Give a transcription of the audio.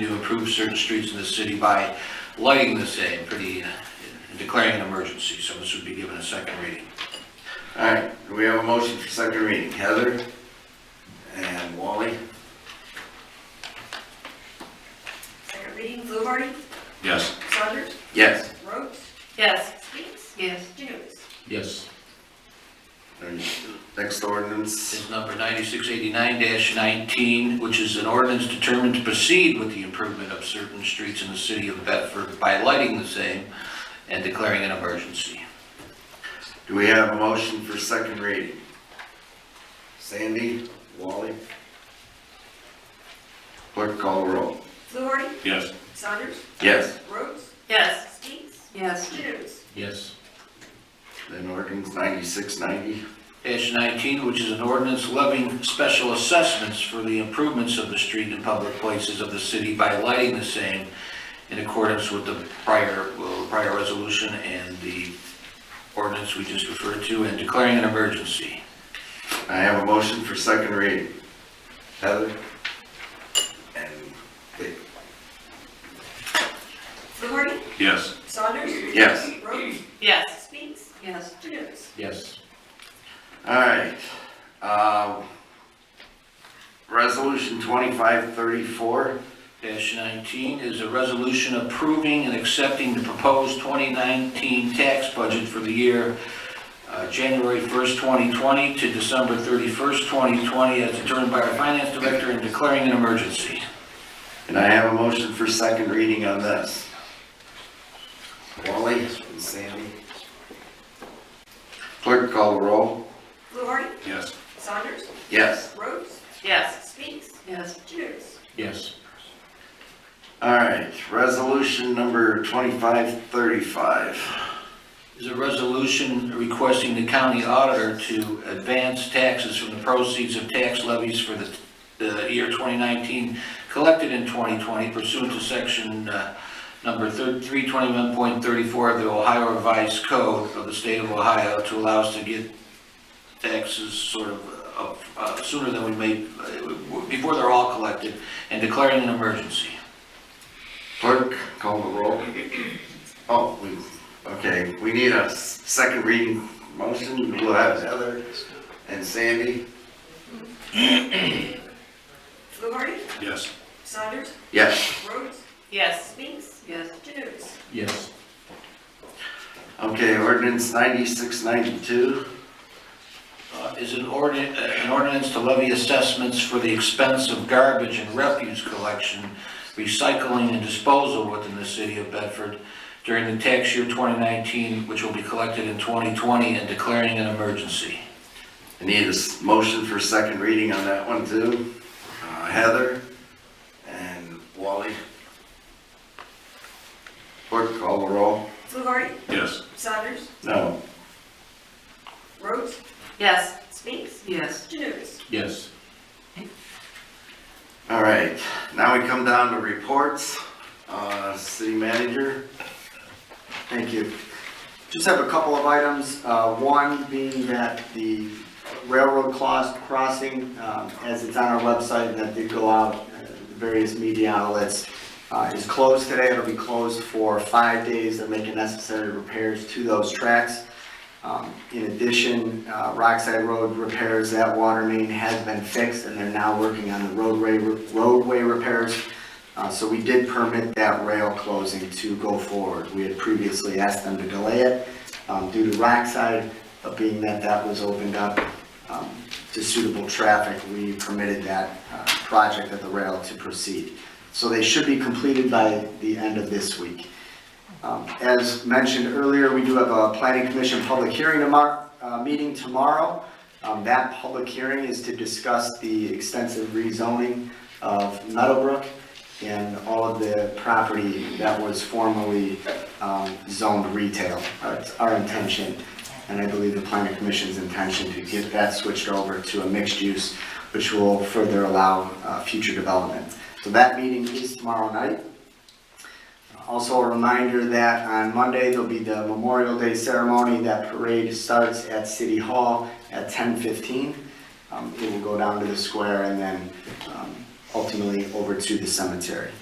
to improve certain streets in the city by lighting the same, pretty, uh, declaring an emergency, so this would be given a second reading. All right, do we have a motion for second reading? Heather and Wally? Second reading, Fluharty, Yes. Saunders, Yes. Rhodes, Yes. Skeets, Yes. Janutus. Yes. And Next ordinance, Is number ninety-six eighty-nine nineteen, which is an ordinance determined to proceed with the improvement of certain streets in the city of Bedford by lighting the same and declaring an emergency. do we have a motion for second reading? Sandy, Wally? Clerk call roll. Fluharty, Yes. Saunders, Yes. Rhodes, Yes. Skeets, Yes. Janutus. Yes. Then ordinance ninety-six ninety, Dash nineteen, which is an ordinance levying special assessments for the improvements of the street and public places of the city by lighting the same in accordance with the prior, well, prior resolution and the ordinance we just referred to and declaring an emergency. I have a motion for second reading. Heather? And Dick? Fluharty, Yes. Saunders. Yes. Rhodes, Yes. Skeets, Yes. Janutus. Yes. All right. Um, Resolution 2534, Dash nineteen is a resolution approving and accepting the proposed twenty nineteen tax budget for the year uh, January first, twenty twenty to December thirty-first, twenty twenty, as determined by our finance director and declaring an emergency. and I have a motion for second reading on this. Wally and Sandy. Clerk call the roll. Fluharty, Yes. Saunders, Yes. Rhodes, Yes. Skeets, Yes. Janutus. Yes. All right, resolution number 2535. Is a resolution requesting the county auditor to advance taxes from the proceeds of tax levies for the, the year 2019 collected in 2020 pursuant to section uh, number thir- 321.34 of the Ohio Revised Code of the State of Ohio to allow us to get taxes sort of uh, uh, sooner than we may, uh, before they're all collected, and declaring an emergency. Clerk, call the roll. Oh, we, okay, we need a s- second reading motion, we'll have Heather and Sandy. Fluharty, Yes. Saunders, Yes. Rhodes, Yes. Skeets, Yes. Janutus. Yes. Okay, ordinance ninety-six ninety-two, uh, is an ordinance, an ordinance to levy assessments for the expense of garbage and refuse collection, recycling and disposal within the city of Bedford during the tax year 2019, which will be collected in 2020, and declaring an emergency. I need a s- motion for second reading on that one too. Uh, Heather and Wally. Clerk, call the roll. Fluharty, Yes. Saunders, No. Rhodes, Yes. Skeets, Yes. Janutus. Yes. All right, now we come down to reports. Uh, city manager, Thank you. Just have a couple of items, uh, one being that the railroad cross- crossing, um, as it's on our website, and that did go out, uh, the various media outlets, uh, is closed today, it'll be closed for five days, they're making necessary repairs to those tracks. Um, In addition, uh, Rockside Road repairs, that water main has been fixed, and they're now working on the roadway, roadway repairs. Uh, So we did permit that rail closing to go forward. We had previously asked them to delay it um, due to Rockside, but being that that was opened up um, to suitable traffic, we permitted that uh, project at the rail to proceed. So they should be completed by the end of this week. Um, As mentioned earlier, we do have a planning commission public hearing tomorrow, uh, meeting tomorrow. Um, That public hearing is to discuss the extensive rezoning of Meadowbrook and all of the property that was formerly um, zoned retail. Uh, It's our intention, and I believe the planning commission's intention, to get that switched over to a mixed use, which will further allow uh, future development. So that meeting is tomorrow night. Also, a reminder that on Monday, there'll be the Memorial Day ceremony. That parade starts at City Hall at 10:15. Um, It will go down to the square and then um, ultimately over to the cemetery.